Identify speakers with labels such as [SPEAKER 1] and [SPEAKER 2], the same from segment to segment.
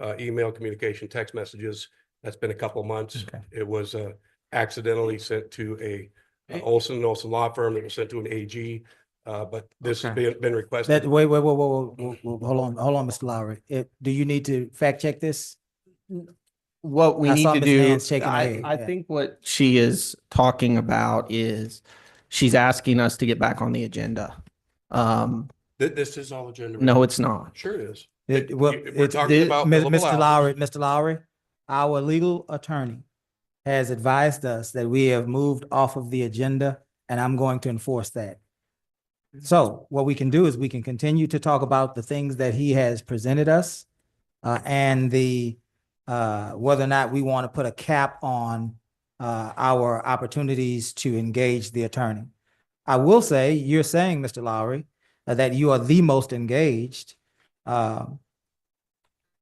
[SPEAKER 1] uh, email communication, text messages. That's been a couple of months.
[SPEAKER 2] Okay.
[SPEAKER 1] It was, uh, accidentally sent to a uh,
[SPEAKER 2] Eh.
[SPEAKER 1] Olson, and Olson Law Firm. It was sent to an AG. Uh, but this has
[SPEAKER 2] Okay.
[SPEAKER 1] been, been
[SPEAKER 2] That,
[SPEAKER 1] requested.
[SPEAKER 2] wait, wait, whoa, whoa, whoa, whoa, whoa, hold on, hold on, Mr. Lowry. It, do you need to fact check this?
[SPEAKER 3] What we
[SPEAKER 2] I
[SPEAKER 3] need
[SPEAKER 2] saw
[SPEAKER 3] to
[SPEAKER 2] Ms.
[SPEAKER 3] do,
[SPEAKER 2] Nance shaking her
[SPEAKER 3] I,
[SPEAKER 2] head,
[SPEAKER 3] I
[SPEAKER 2] yeah.
[SPEAKER 3] think what she is talking about is she's asking us to get back on the agenda. Um,
[SPEAKER 1] Th- This is all agenda.
[SPEAKER 3] no, it's not.
[SPEAKER 1] Sure it is.
[SPEAKER 2] It-
[SPEAKER 1] It-
[SPEAKER 2] well,
[SPEAKER 1] you- We're
[SPEAKER 2] it's-
[SPEAKER 1] talking
[SPEAKER 3] the-
[SPEAKER 1] about.
[SPEAKER 2] Mi-
[SPEAKER 1] billable
[SPEAKER 2] Mr.
[SPEAKER 1] hours.
[SPEAKER 2] Lowry, Mr. Lowry, our legal attorney has advised us that we have moved off of the agenda and I'm going to enforce that. So what we can do is we can continue to talk about the things that he has presented us uh, and the uh, whether or not we want to put a cap on uh, our opportunities to engage the attorney. I will say, you're saying, Mr. Lowry, uh, that you are the most engaged. Um,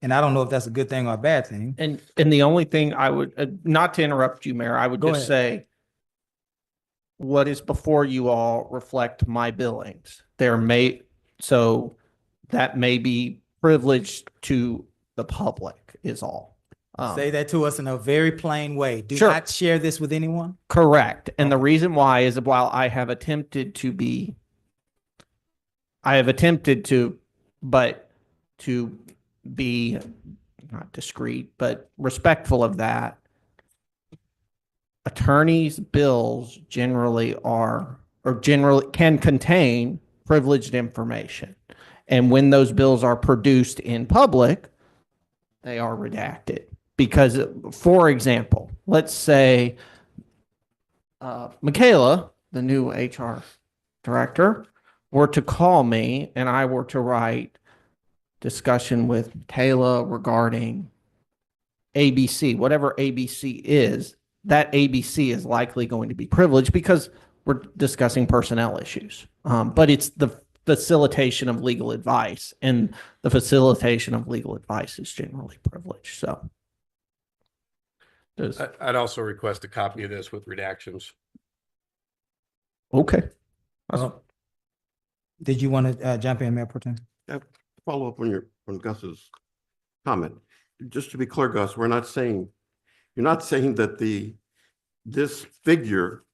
[SPEAKER 2] and I don't know if that's a good thing or a bad thing.
[SPEAKER 3] And, and the only thing I would, uh, not to interrupt you, Mayor, I would
[SPEAKER 2] Go
[SPEAKER 3] just say what is before you all reflect my billings. There may, so that may be privileged to the public is all. Um,
[SPEAKER 2] Say that to us in a very plain way. Do
[SPEAKER 3] Sure.
[SPEAKER 2] not share this with anyone.
[SPEAKER 3] Correct. And the reason why is while I have attempted to be, I have attempted to, but to be not discreet, but respectful of that. Attorneys' bills generally are, or generally can contain privileged information. And when those bills are produced in public, they are redacted. Because, for example, let's say uh, Michaela, the new HR director, were to call me and I were to write discussion with Michaela regarding ABC, whatever ABC is, that ABC is likely going to be privileged because we're discussing personnel issues. Um, but it's the facilitation of legal advice and the facilitation of legal advice is generally privileged. So. Does-
[SPEAKER 1] I- I'd also request a copy of this with redactions.
[SPEAKER 3] okay.
[SPEAKER 2] Well, Did you want to uh, jump in, Mayor Proton?
[SPEAKER 4] follow up on your, on Gus's comment. Just to be clear, Gus, we're not saying, you're not saying that the, this figure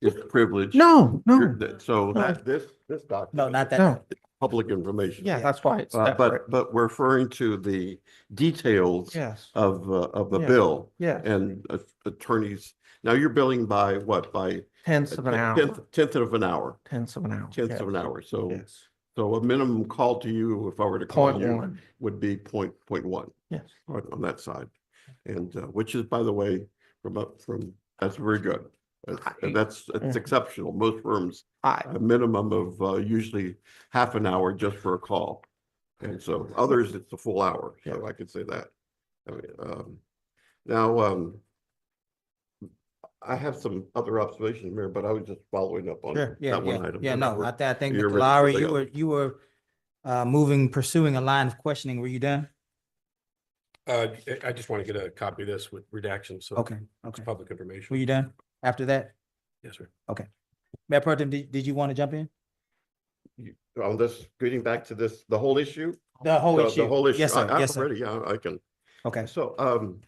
[SPEAKER 4] is privileged.
[SPEAKER 3] No, no.
[SPEAKER 4] You're- that- So that, this, this document.
[SPEAKER 2] No, not
[SPEAKER 3] No.
[SPEAKER 2] that.
[SPEAKER 4] Public information.
[SPEAKER 3] Yeah,
[SPEAKER 2] Yeah.
[SPEAKER 3] that's why it's
[SPEAKER 4] Uh,
[SPEAKER 3] separate.
[SPEAKER 4] But, but we're referring to the details
[SPEAKER 3] Yes,
[SPEAKER 4] of, uh, of the
[SPEAKER 3] Yeah.
[SPEAKER 4] bill
[SPEAKER 3] yeah,
[SPEAKER 4] and uh, attorneys. Now you're billing by what? By?
[SPEAKER 3] tenths of an hour,
[SPEAKER 4] tenth- Tenth of an hour,
[SPEAKER 3] tenths of an hour.
[SPEAKER 4] tenth of an hour. So,
[SPEAKER 3] Yes,
[SPEAKER 4] so a minimum call to you, if I were to
[SPEAKER 3] point
[SPEAKER 4] call you.
[SPEAKER 3] one,
[SPEAKER 4] would be point, point one
[SPEAKER 3] yes.
[SPEAKER 4] on, on that side. And, uh, which is, by the way, from up from, that's very good. That's-
[SPEAKER 3] I-
[SPEAKER 4] And that's, that's
[SPEAKER 3] Mhm.
[SPEAKER 4] exceptional. Most firms,
[SPEAKER 3] I,
[SPEAKER 4] a minimum of, uh, usually half an hour just for a call. And so others, it's a full hour, so
[SPEAKER 3] Yeah.
[SPEAKER 4] I could say that. I mean, um, now, um, I have some other observations, Mayor, but I was just following up on
[SPEAKER 2] Sure, yeah,
[SPEAKER 4] that one
[SPEAKER 2] yeah,
[SPEAKER 4] item.
[SPEAKER 2] yeah,
[SPEAKER 4] and
[SPEAKER 2] no, I
[SPEAKER 4] we're-
[SPEAKER 2] thi- I think,
[SPEAKER 4] you're
[SPEAKER 2] Mr.
[SPEAKER 4] ready for
[SPEAKER 2] Lowry, you
[SPEAKER 4] something
[SPEAKER 2] were,
[SPEAKER 4] else.
[SPEAKER 2] you were uh, moving, pursuing a line of questioning. Were you done?
[SPEAKER 1] Uh, I- I just want to get a copy of this with redactions, so
[SPEAKER 2] Okay,
[SPEAKER 1] it's
[SPEAKER 2] okay.
[SPEAKER 1] public
[SPEAKER 2] Were
[SPEAKER 1] information.
[SPEAKER 2] you done after that?
[SPEAKER 1] Yes, sir.
[SPEAKER 2] Mayor Proton, did, did you want to jump in?
[SPEAKER 4] On this, getting back to this, the whole issue? Uh,
[SPEAKER 2] The whole
[SPEAKER 4] The-
[SPEAKER 2] issue?
[SPEAKER 4] The whole issue.
[SPEAKER 2] Yes,
[SPEAKER 4] I-
[SPEAKER 2] sir,
[SPEAKER 4] I'm
[SPEAKER 2] yes, sir.
[SPEAKER 4] Ready, yeah, I can.
[SPEAKER 2] Okay,
[SPEAKER 4] So, um,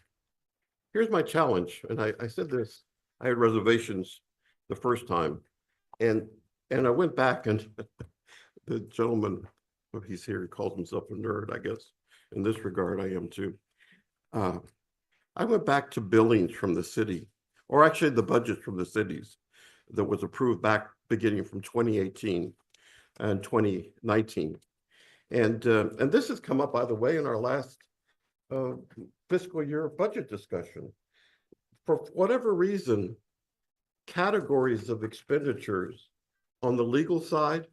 [SPEAKER 4] here's my challenge, and I, I said this, I had reservations the first time. And, and I went back and the gentleman, well, he's here, he calls himself a nerd, I guess. In this regard, I am too. Uh, I went back to billings from the city, or actually the budgets from the cities that was approved back beginning from twenty eighteen and twenty nineteen. And, uh, and this has come up, by the way, in our last uh, fiscal year budget discussion. For whatever reason, categories of expenditures on the legal side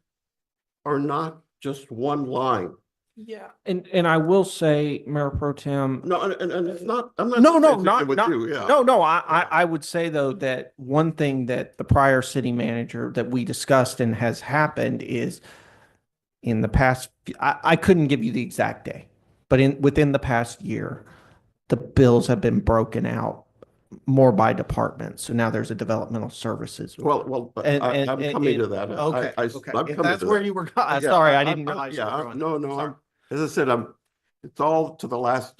[SPEAKER 4] are not just one line.
[SPEAKER 3] yeah, and, and I will say, Mayor Pro Tem,
[SPEAKER 4] No, and, and- and it's not, I'm not.
[SPEAKER 3] No, no,
[SPEAKER 4] disagreeing
[SPEAKER 3] not-
[SPEAKER 4] with
[SPEAKER 3] not-
[SPEAKER 4] you, Yeah.
[SPEAKER 3] no, no, I, I, I would say though that one thing that the prior city manager that we discussed and has happened is in the past, I, I couldn't give you the exact day, but in, within the past year, the bills have been broken out more by department. So now there's a developmental services.
[SPEAKER 4] Well, well, but
[SPEAKER 3] And-
[SPEAKER 4] I,
[SPEAKER 3] and-
[SPEAKER 4] I'm
[SPEAKER 3] and-
[SPEAKER 4] coming to
[SPEAKER 3] and-
[SPEAKER 4] that. I-
[SPEAKER 3] Okay,
[SPEAKER 4] I- I-
[SPEAKER 3] okay.
[SPEAKER 4] I'm
[SPEAKER 3] If
[SPEAKER 4] coming
[SPEAKER 3] that's
[SPEAKER 4] to
[SPEAKER 3] where
[SPEAKER 4] that.
[SPEAKER 3] you were, go- I'm
[SPEAKER 4] Yeah,
[SPEAKER 3] sorry, I
[SPEAKER 4] I'm-
[SPEAKER 3] didn't
[SPEAKER 4] I'm-
[SPEAKER 3] realize. you
[SPEAKER 4] Yeah,
[SPEAKER 3] were
[SPEAKER 4] I'm-
[SPEAKER 3] going there.
[SPEAKER 4] no, no,
[SPEAKER 3] Sorry.
[SPEAKER 4] I'm, as I said, I'm, it's all to the last